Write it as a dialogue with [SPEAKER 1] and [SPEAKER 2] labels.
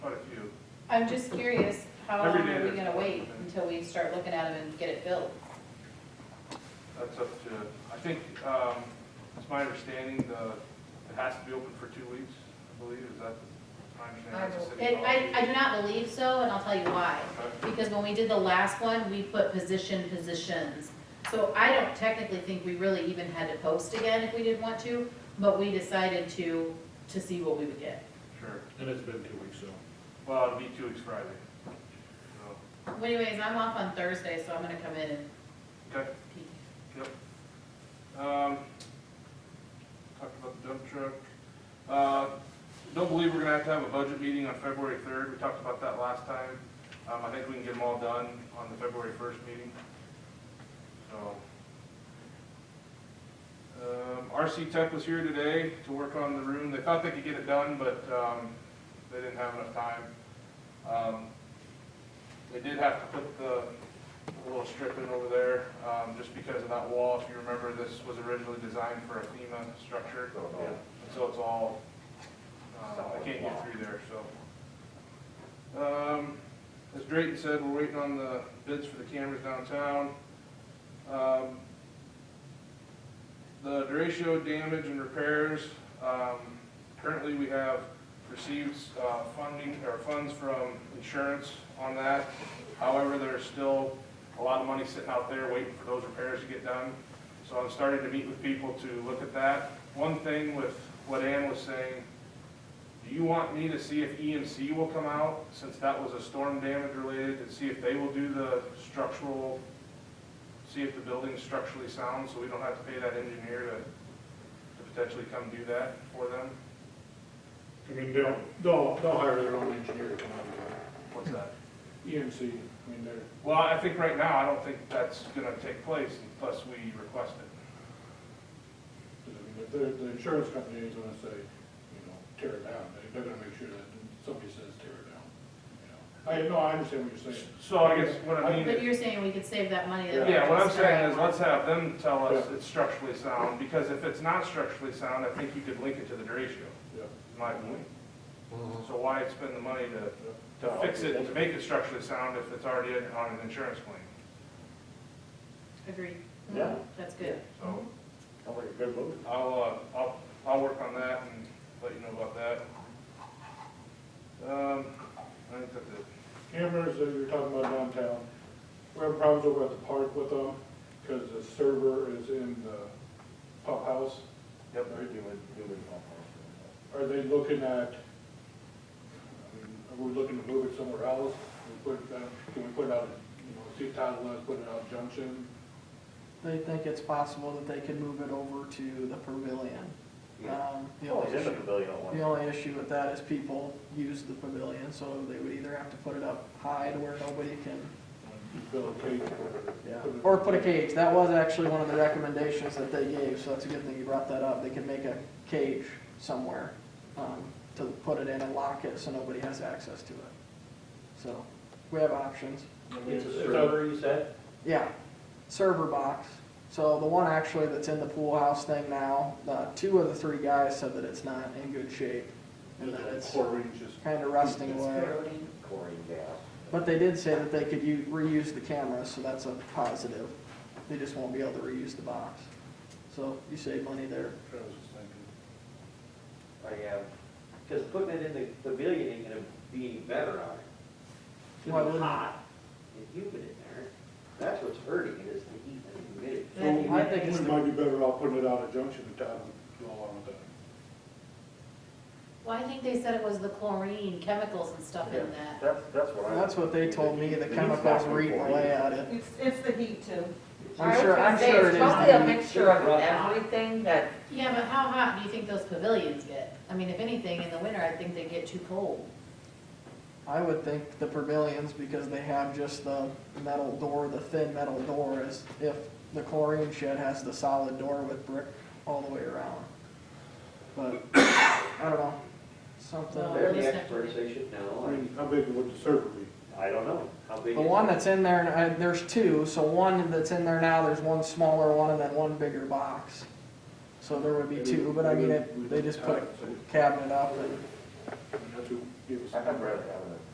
[SPEAKER 1] I'm just curious, how long
[SPEAKER 2] Every day
[SPEAKER 1] are we
[SPEAKER 2] there's
[SPEAKER 1] gonna wait
[SPEAKER 2] something.
[SPEAKER 1] until we start looking at them and get it filled?
[SPEAKER 2] That's up to, I think, um, it's my understanding, the, it has to be open for two weeks, I believe, is that my understanding? That's the city
[SPEAKER 1] It, I, I
[SPEAKER 2] policy.
[SPEAKER 1] do not believe so, and I'll tell you why.
[SPEAKER 2] Okay.
[SPEAKER 1] Because when we did the last one, we put position, positions. So I don't technically think we really even had to post again if we didn't want to, but we decided to, to see what we would get.
[SPEAKER 2] Sure,
[SPEAKER 3] And it's been two weeks, so.
[SPEAKER 2] well, it'll be two weeks Friday, so,
[SPEAKER 1] Well, Anyways, I'm off on Thursday, so I'm gonna come in and
[SPEAKER 2] okay,
[SPEAKER 1] peek.
[SPEAKER 2] yep. Um, talked about the dump truck, uh, don't believe we're gonna have to have a budget meeting on February third, we talked about that last time. Um, I think we can get them all done on the February first meeting, so. Um, RC Tech was here today to work on the room. They thought they could get it done, but, um, they didn't have enough time. Um, They did have to put the little strip in over there, um, just because of that wall. If you remember, this was originally designed for a FEMA structure. And So it's all, um, I can't get through there, so. Um, as Drayton said, we're waiting on the bids for the cameras downtown. Um, the derecho damage and repairs, um, currently we have received, uh, funding, or funds from insurance on that. However, there's still a lot of money sitting out there waiting for those repairs to get done. So I'm starting to meet with people to look at that. One thing with what Ann was saying, do you want me to see if EMC will come out, since that was a storm damage related, and see if they will do the structural see if the building's structurally sound, so we don't have to pay that engineer to, to potentially come do that for them?
[SPEAKER 3] I mean, they'll, they'll, they'll hire their own engineer to come out and
[SPEAKER 2] What's that?
[SPEAKER 3] do it. EMC, I mean, they're,
[SPEAKER 2] Well, I think right now, I don't think that's gonna take place unless we request it.
[SPEAKER 3] I mean, the, the insurance company is gonna say, you know, tear it down. They- They're gonna make sure that somebody says tear it down, you know. I, no, I understand what you're saying.
[SPEAKER 2] So I guess what I mean
[SPEAKER 1] But
[SPEAKER 2] is,
[SPEAKER 1] you're saying we could save that money that. we
[SPEAKER 2] yeah, what I'm
[SPEAKER 1] spent
[SPEAKER 2] saying
[SPEAKER 1] on
[SPEAKER 2] is,
[SPEAKER 1] one.
[SPEAKER 2] let's have them tell us
[SPEAKER 3] Yeah.
[SPEAKER 2] it's structurally sound, because if it's not structurally sound, I think you could link it to the derecho,
[SPEAKER 3] Yeah.
[SPEAKER 2] in my opinion. So why spend the money to, to fix it, and to make it structurally sound if it's already on an insurance claim?
[SPEAKER 1] Agreed.
[SPEAKER 4] Yeah.
[SPEAKER 1] That's good.
[SPEAKER 2] So,
[SPEAKER 4] Sounds like a good move.
[SPEAKER 2] I'll, uh, I'll, I'll work on that and let you know about that. Um, I think that's it.
[SPEAKER 3] Cameras that you're talking about downtown, we have problems over at the park with them, because the server is in the pump house.
[SPEAKER 4] Yep, they're doing, doing all
[SPEAKER 3] Are they looking at, I mean, are we looking to move it somewhere else? We put, uh, can we put it out, you know, see if Todd wants to put it out Junction?
[SPEAKER 5] They think it's possible that they could move it over to the pavilion. Um, The
[SPEAKER 4] Oh,
[SPEAKER 5] only
[SPEAKER 4] it's in the
[SPEAKER 5] issue-
[SPEAKER 4] pavilion at one.
[SPEAKER 5] the only issue with that is people use the pavilion, so they would either have to put it up high to where nobody can,
[SPEAKER 3] Build um, a cage
[SPEAKER 5] yeah,
[SPEAKER 3] or.
[SPEAKER 5] or put a cage. That was actually one of the recommendations that they gave, so that's a good thing you brought that up. They could make a cage somewhere um, to put it in and lock it so nobody has access to it. So, we have options.
[SPEAKER 4] It's
[SPEAKER 3] It's
[SPEAKER 4] a
[SPEAKER 3] a-
[SPEAKER 4] server, you said?
[SPEAKER 5] Yeah, server box. So the one actually that's in the pool house thing now, uh, two of the three guys said that it's not in good shape and that it's
[SPEAKER 3] Four inches.
[SPEAKER 5] kind of rusting
[SPEAKER 1] It's
[SPEAKER 5] away.
[SPEAKER 1] corroding.
[SPEAKER 4] Chlorine gas.
[SPEAKER 5] But they did say that they could u- reuse the cameras, so that's a positive. They just won't be able to reuse the box. So you save money there.
[SPEAKER 3] Travis is thinking.
[SPEAKER 6] I am, because putting it in the pavilion ain't gonna be any better on it. It's
[SPEAKER 5] Why
[SPEAKER 6] gonna be
[SPEAKER 5] wouldn't it?
[SPEAKER 6] hot and humid in there, that's what's hurting it, is the heat and the humidity.
[SPEAKER 1] That'd be
[SPEAKER 3] So we-
[SPEAKER 5] I think it's
[SPEAKER 3] We
[SPEAKER 5] the-
[SPEAKER 3] might be better off putting it out at Junction and Todd would go along with that.
[SPEAKER 1] Well, I think they said it was the chlorine, chemicals and stuff in that.
[SPEAKER 4] That's, that's what I.
[SPEAKER 5] That's what they told me, the chemicals were eating away at it.
[SPEAKER 7] It's, it's the heat too.
[SPEAKER 5] I'm sure, I'm
[SPEAKER 8] I was
[SPEAKER 5] sure
[SPEAKER 8] gonna
[SPEAKER 5] it
[SPEAKER 8] say, it's probably a
[SPEAKER 5] is.
[SPEAKER 8] mixture of everything that,
[SPEAKER 1] Yeah, but how hot do you think those pavilions get? I mean, if anything, in the winter, I think they get too cold.
[SPEAKER 5] I would think the pavilions, because they have just the metal door, the thin metal door, is if the chlorine shed has the solid door with brick all the way around. But, I don't know, something,
[SPEAKER 6] They're
[SPEAKER 1] Well,
[SPEAKER 6] the
[SPEAKER 1] it's not-
[SPEAKER 6] experts, they should know,
[SPEAKER 3] I
[SPEAKER 6] I,
[SPEAKER 3] mean, how big would the server be?
[SPEAKER 6] I don't know, how big.
[SPEAKER 5] the
[SPEAKER 6] is
[SPEAKER 5] one
[SPEAKER 6] it?
[SPEAKER 5] that's in there, and I- there's two, so one that's in there now, there's one smaller one and then one bigger box. So there would be two, but I mean, it- they just put a cabinet up and
[SPEAKER 3] That's who gave us.
[SPEAKER 4] I'd rather have it